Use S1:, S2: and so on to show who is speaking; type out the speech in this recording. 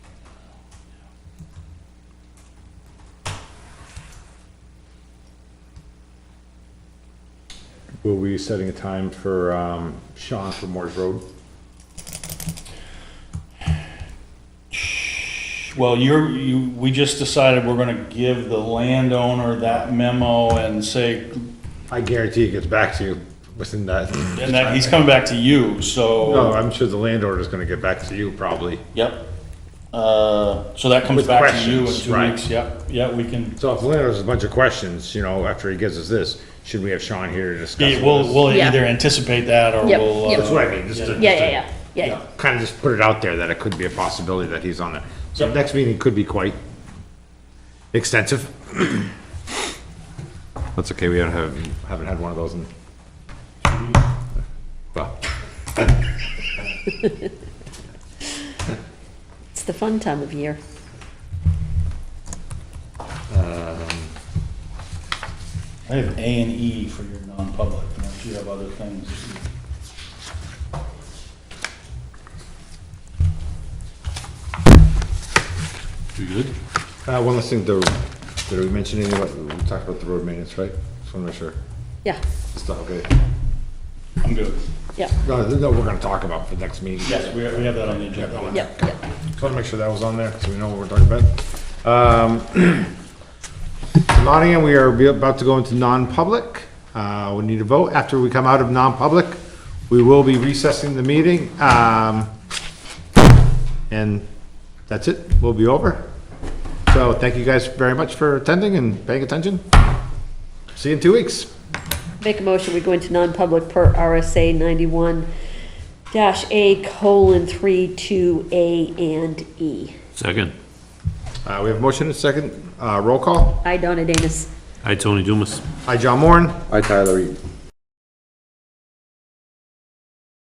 S1: Will we be setting a time for um, Sean for Moore's Road?
S2: Well, you're, you, we just decided we're gonna give the landowner that memo and say,
S1: I guarantee it gets back to you within that.
S2: and that, he's coming back to you,
S1: No,
S2: so,
S1: I'm sure the landowner is gonna get back to you probably.
S2: yep. Uh, so that comes
S1: With
S2: back to you in
S1: questions,
S2: two
S1: right.
S2: weeks, yep, yeah, we can,
S1: So if the landowner has a bunch of questions, you know, after he gives us this, should we have Sean here to discuss
S2: yeah, we'll,
S1: this?
S2: we'll
S3: Yeah.
S2: either anticipate that or
S3: Yep,
S2: we'll. uh,
S3: yep.
S1: That's what I mean, just to.
S3: Yeah, yeah, yeah, yeah, yeah.
S1: Kind of just put it out there that it could be a possibility that he's on it. So
S2: Yep.
S1: next meeting could be quite extensive. That's okay, we don't have, haven't had one of those in. Well,
S3: It's the fun time of year.
S2: I have A and E for your non-public, unless you have other things. You good?
S1: Uh, one last thing, the, did we mention anything about, we talked about the road maintenance, right? Just wanna make sure.
S3: Yeah,
S1: It's not- okay.
S2: I'm good.
S3: yeah,
S1: No, no, we're gonna talk about for next meeting.
S2: Yes, we, we have that on the agenda.
S3: yeah, yeah.
S1: Just wanna make sure that was on there, so we know what we're talking about. Um, Nottingham, we are be- about to go into non-public. Uh, we need a vote. After we come out of non-public, we will be recessing the meeting. Um, and that's it. We'll be over. So thank you guys very much for attending and paying attention. See you in two weeks.
S3: Make a motion, we go into non-public per RSA ninety-one dash A colon three two A and E.
S4: Second.
S1: Uh, we have a motion and a second. Uh, roll call.
S3: I, Donna Danus.
S4: Hi, Tony Dumas.
S1: Hi, John Moore.
S5: Hi, Tyler. Eaton.